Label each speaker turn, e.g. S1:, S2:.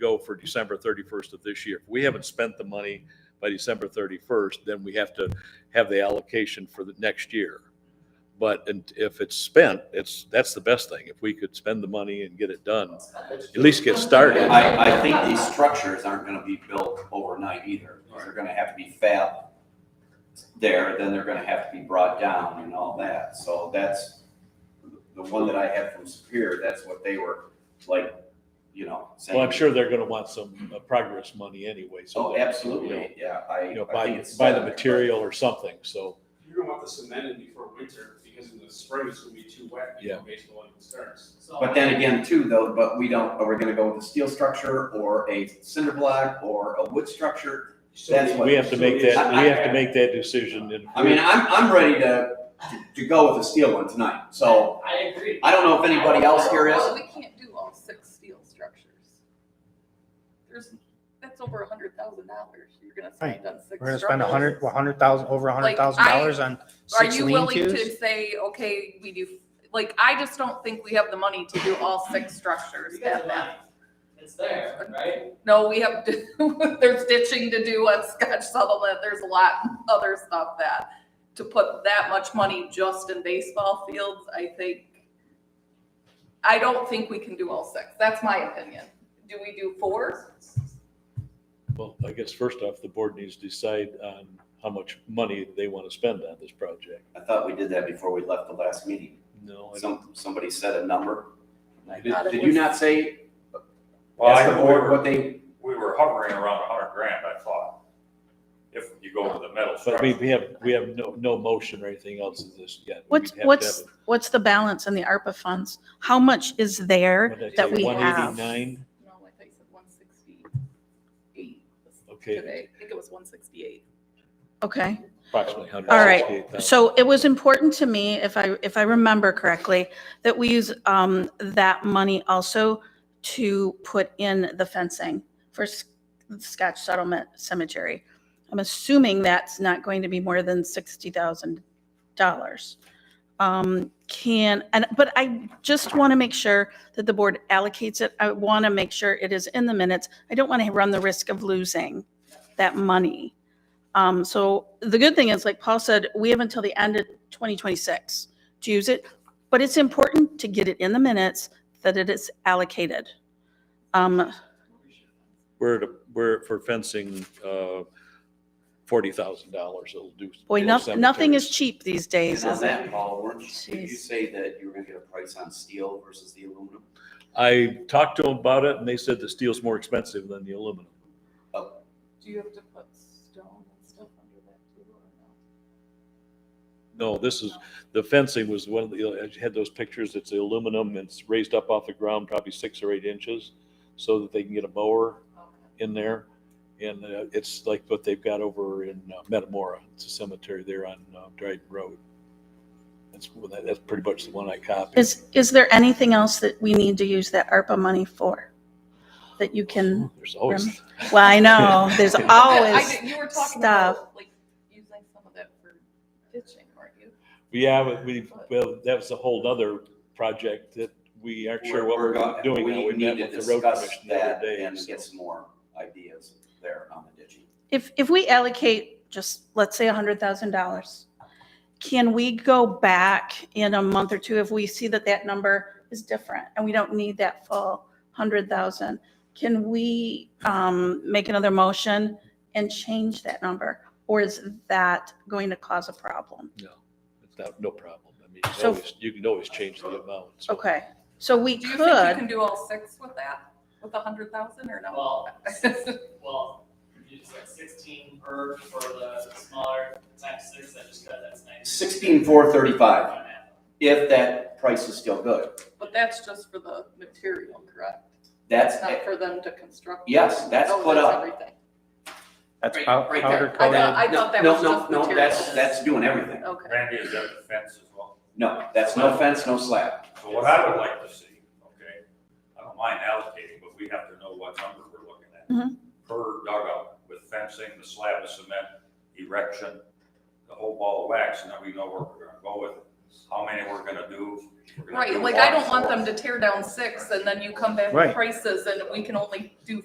S1: go for December thirty-first of this year. If we haven't spent the money by December thirty-first, then we have to have the allocation for the next year. But and if it's spent, it's, that's the best thing. If we could spend the money and get it done, at least get started.
S2: I, I think these structures aren't gonna be built overnight either. They're gonna have to be fab there, then they're gonna have to be brought down and all that. So that's the one that I had from Superior, that's what they were like, you know, saying.
S1: Well, I'm sure they're gonna want some uh, progress money anyway, so.
S2: Oh,
S1: that, you
S2: absolutely,
S1: know,
S2: yeah, I.
S1: You know,
S2: I think
S1: buy,
S2: it's uh,
S1: buy the
S2: set, but-
S1: material or something, so,
S3: You're gonna want the cement in before winter, because in the spring it's gonna be too wet
S1: Yeah.
S3: before baseball even starts.
S2: But then again, too, though, but we don't, are we gonna go with a steel structure or a cinder block or a wood structure? That's what-
S1: we have to make that, we have to
S3: I-
S1: make that decision. and-
S2: I mean, I'm, I'm ready to, to go with a steel one tonight, so.
S4: I agree.
S2: I don't know if anybody else here
S5: Well,
S2: is.
S5: we can't do all six steel structures. There's, that's over a hundred thousand dollars you're gonna spend on six structures.
S6: We're gonna spend a hundred, a hundred thousand, over a hundred
S5: Like,
S6: thousand
S5: I-
S6: dollars on
S5: Are
S6: six
S5: you
S6: lean
S5: willing to
S6: tos?
S5: say, okay, we do, like, I just don't think we have the money to do all six structures.
S4: You got the money. It's there, right?
S5: No, we have, there's ditching to do on Scotch Settlement, there's a lot of other stuff that, to put that much money just in baseball fields, I think, I don't think we can do all six, that's my opinion. Do we do four?
S1: Well, I guess first off, the board needs to decide on how much money they want to spend on this project.
S2: I thought we did that before we left the last meeting.
S1: No, I don't,
S2: Some, somebody said a number. Did,
S5: thought it
S2: did
S5: was-
S2: you not say,
S7: Well,
S2: ask
S7: I,
S2: the
S7: we
S2: board
S7: were,
S2: what they,
S7: we were hovering around a hundred grand, I thought. If you go to the metal
S1: but we,
S7: structure.
S1: we have, we have no, no motion or anything else in this yet. We'd
S8: What's,
S1: have to have
S8: what's,
S1: it.
S8: what's the balance in the ARPA funds? How much is there
S1: What'd I
S8: that
S1: say,
S8: we have?
S1: 189?
S5: No, I think it's one sixty-eight
S1: Okay,
S5: today, I think it was one sixty-eight.
S8: Okay,
S1: approximately hundred
S8: All right,
S1: sixty-eight thousand.
S8: so it was important to me, if I, if I remember correctly, that we use um, that money also to put in the fencing for S- Scotch Settlement Cemetery. I'm assuming that's not going to be more than sixty thousand dollars. Um, can, and, but I just want to make sure that the board allocates it. I want to make sure it is in the minutes. I don't want to run the risk of losing that money. Um, so the good thing is, like Paul said, we have until the end of twenty twenty-six to use it. But it's important to get it in the minutes that it is allocated. Um,
S1: We're, at a- we're for fencing, uh, forty thousand dollars. It'll do.
S8: boy,
S1: both
S8: nothing, nothing is
S1: cemeteries.
S8: cheap these days,
S2: and on
S8: is it?
S2: that, Paul, weren't, you- did you
S8: Jeez.
S2: say that you were gonna get a price on steel versus the aluminum?
S1: I talked to them about it and they said the steel's more expensive than the aluminum.
S5: Do you have to put stone and stuff under that too, or no?
S1: No, this is, the fencing was one of the, I had those pictures, it's aluminum, it's raised up off the ground probably six or eight inches so that they can get a mower in there. And uh, it's like what they've got over in uh, Metamora, it's a cemetery there on uh, Dryden Road. That's, well, that- that's pretty much the one I copied.
S8: Is, is there anything else that we need to use that ARPA money for? That you can,
S1: There's always.
S8: well, I know, there's
S5: I
S8: always,
S5: did- You were talking about, like, using some of that for ditching, weren't you?
S1: Yeah, but we, well, that was a whole other project that we aren't sure what
S2: We're- we're
S1: we're
S2: gonna-
S1: doing now.
S2: We
S1: We met
S2: need to
S1: with the road
S2: discuss
S1: commission the other
S2: that
S1: day.
S2: and
S1: so-
S2: get some more ideas there on the ditching.
S8: if, if we allocate just, let's say a hundred thousand dollars, can we go back in a month or two if we see that that number is different and we don't need that full hundred thousand? Can we, um, make another motion and change that number? Or is that going to cause a problem?
S1: No, it's not, no problem. I mean, you can
S8: So-
S1: always, you can always change the amount. so.
S8: Okay, so we
S5: Do you think you
S8: could.
S5: can do all six with that, with a hundred thousand or no?
S4: Well, well, it's like sixteen per for the smaller times six, I just got, that's nice.
S2: Sixteen four thirty-five, if that price is still good.
S5: But that's just for the material, correct?
S2: That's,
S5: It's not for them to construct.
S2: Yes, that's
S5: Oh,
S2: put up.
S5: everything.
S6: That's
S2: Right-
S6: pow-
S2: right
S6: powder
S2: there.
S5: I
S6: coated.
S5: thought, I thought that
S2: No,
S5: was
S2: no,
S5: just
S2: No, that's,
S5: materials.
S2: that's doing everything.
S5: Okay.
S7: Randy, is that the fence as well?
S2: No, that's no fence, no slab.
S7: So what I would like to see, okay, I don't mind allocating, but we have to know what number we're looking at.
S5: Mm-hmm.
S8: Mhm.
S7: Per dugout with fencing, the slab of cement, erection, the whole ball of wax, and then we know where we're gonna go with it. how many we're gonna do. We're gonna
S5: Right,
S7: do
S5: like I
S7: one,
S5: don't want
S7: so-
S5: them to tear down six and then you come back with
S6: Right.
S5: prices and we can only do